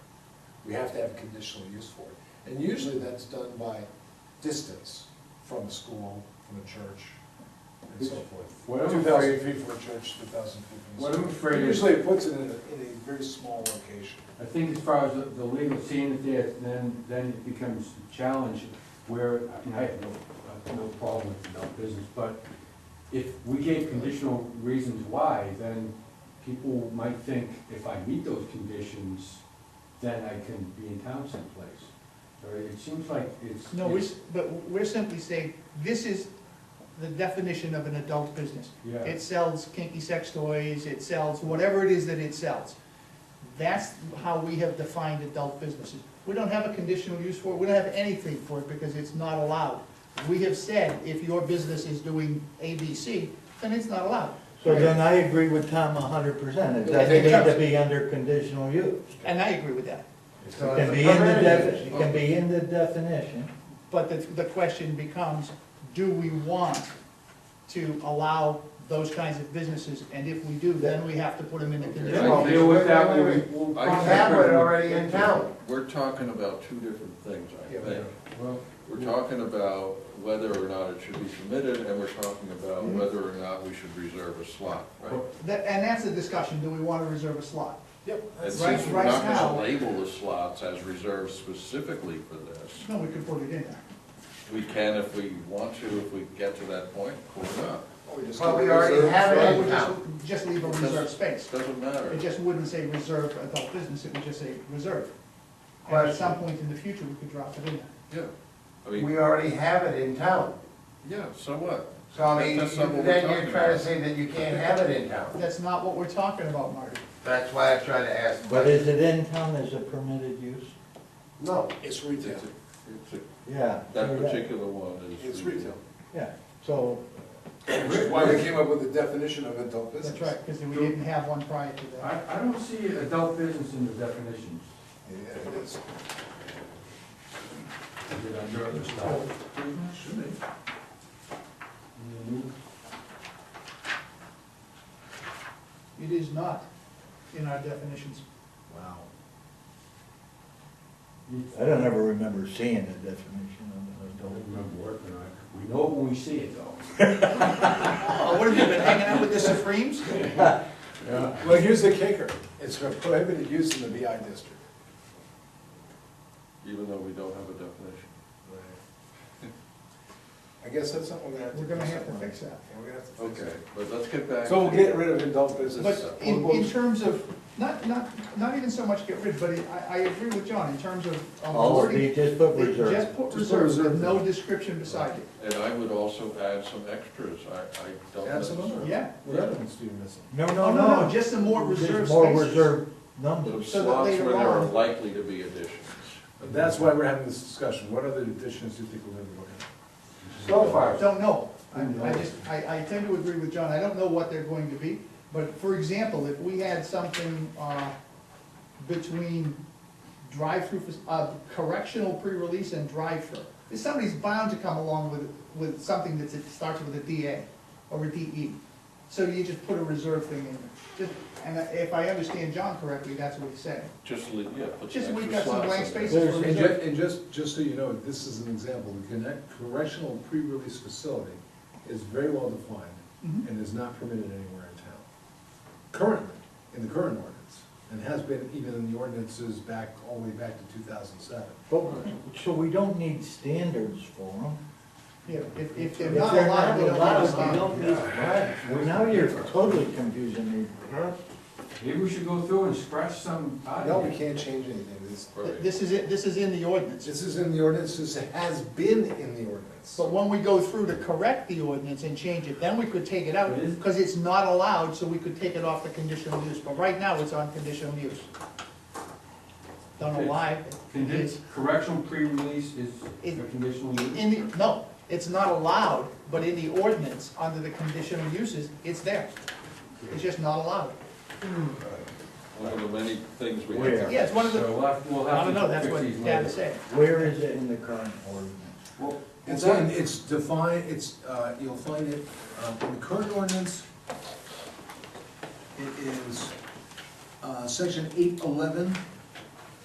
we have to have conditional use for it. And usually that's done by distance from a school, from a church, and so What I'm forth. afraid- Two thousand feet from a church, two thousand feet from What a I'm school. afraid is- Usually it puts it in a, in a very small location. I think as far as the- the legal scene it there, then, then it becomes a challenge where, I mean, I have no, I have no problem with adult business, but if we gave conditional reasons why, then people might think if I meet those conditions, then I can be in town someplace. Or it seems like it's. No, we're, s- but we're simply saying, this is the definition of an adult business. Yeah, It sells kinky sex toys, it sells whatever it is that it sells. That's how we have defined adult businesses. We don't have a conditional use for it, we don't have anything for it because it's not allowed. We have said, if your business is doing A, B, C, then it's not allowed. So then I agree with Tom a hundred percent, it doesn't need to be under conditional use. And I agree with that. It can be in the defi, it can be in the definition. But the, the question becomes, do we want to allow those kinds of businesses? And if we do, then we have to put them in the I'll conditional. deal with that Wait, when wait, we. wait. we'll- I we'll- have it already in town. We're talking about two different things, I Yeah, we think. are. Well, We're talking about whether or not it should be permitted, and we're talking about Mhm. whether or not we should reserve a slot, right? That, and that's the discussion, do we want to reserve a slot? Yep. And right- since we're right not gonna now- label the slots as reserved specifically for this, No, we could put it in there. we can if we want to, if we get to that point, or not. Well, we already have Or we just, just leave a reserve It space. doesn't matter. It just wouldn't say reserve adult business, it would just say reserve. And at Question. some point in the future, we could drop it in there. Yeah, I mean, We already have it in town, yeah, so what? so I mean, That's not what we're then you're talking trying to about. say that you can't have it in town. That's not what we're talking about, Marty. That's why I tried to ask, But but is it in town as a permitted use? no, It's It's retail, a- it's a- Yeah. That so that- particular one is. it's retail. Yeah, so, Which is why we came up with the definition of adult business. That's right, because we didn't have one prior to that. I, I don't see adult business in the definitions. Yeah, it is. Did I hear this stuff? Should be. Mhm. It is not in our definitions. It's- uh, I don't ever remember seeing the definition I of don't an adult. remember working on it. We know it when we see it though. Oh, what have you been hanging out with the Supremes? Yeah. Well, here's the kicker, it's a prohibited use in the BI district. Even though we don't have a definition. I guess that's something we're gonna have to. We're gonna do have to something. fix that. Yeah, we're gonna have to fix Okay, it. but let's get back. So we'll to- get rid of adult business. But in, in terms of, not, not, not even so much get rid, but I, I agree with John, in terms of. of All of wording, these, just put it- Just reserve. put Just put reserves with reserve. no description beside it. And I would also add some extras, I, I don't. Add some necessarily- other. Yeah. What other ones do you miss? No, Oh, no, no, no, no. just some more reserve Just More spaces. reserve numbers. Some So that slots later where there are on- likely to be additions. That's why we're having this discussion, what other additions do you think we're gonna be looking so far, Don't know. I, I just, I, I tend to agree with John. I don't know what they're going to be. But for example, if we had something, uh, between drive-through, fac- uh, correctional pre-release and drive-through, if somebody's bound to come along with, with something that's, it starts with a DA or a DE. So you just put a reserve thing in there. Just, and if I understand John correctly, that's what he's saying. Just, leave- yeah, put Just, some we've extra got some slots blank in there. spaces for at? And reserve. ju- and just, just so you know, this is an example, the connect- correctional pre-release facility is very well defined Mhm. and is not permitted anywhere in town. Currently, in the current ordinance, and has been even in the ordinances back, all the way back to two thousand seven. But, so we don't need standards for them. Yeah, if, if they're If not they're allowed, they don't allowed, understand. we don't need that. Well, now you're totally confusing me. Maybe we should go through and scratch some out No, of we here. can't change anything, this, Th- Right. This is it, this is in the ordinance. this is in the ordinance, this has been in the ordinance. But when we go through to correct the ordinance and change it, then we could take it out, It is- because it's not allowed, so we could take it off the conditional use, but right now, it's on conditional use. Don't know why, Condi- it's, Correctional pre-release is It- a conditional use. in the, no, it's not allowed, but in the ordinance, under the conditional uses, it's there. It's just not allowed. One of the many things we Where? have. Yeah, it's one of the, So we'll have, uh, we'll I have don't know, that's to what fix these Dad is later. saying. Where is it in the current ordinance? Well, It's well, in, it's defined, it's, uh, you'll find it, um, in the current ordinance, it is, uh, section eight eleven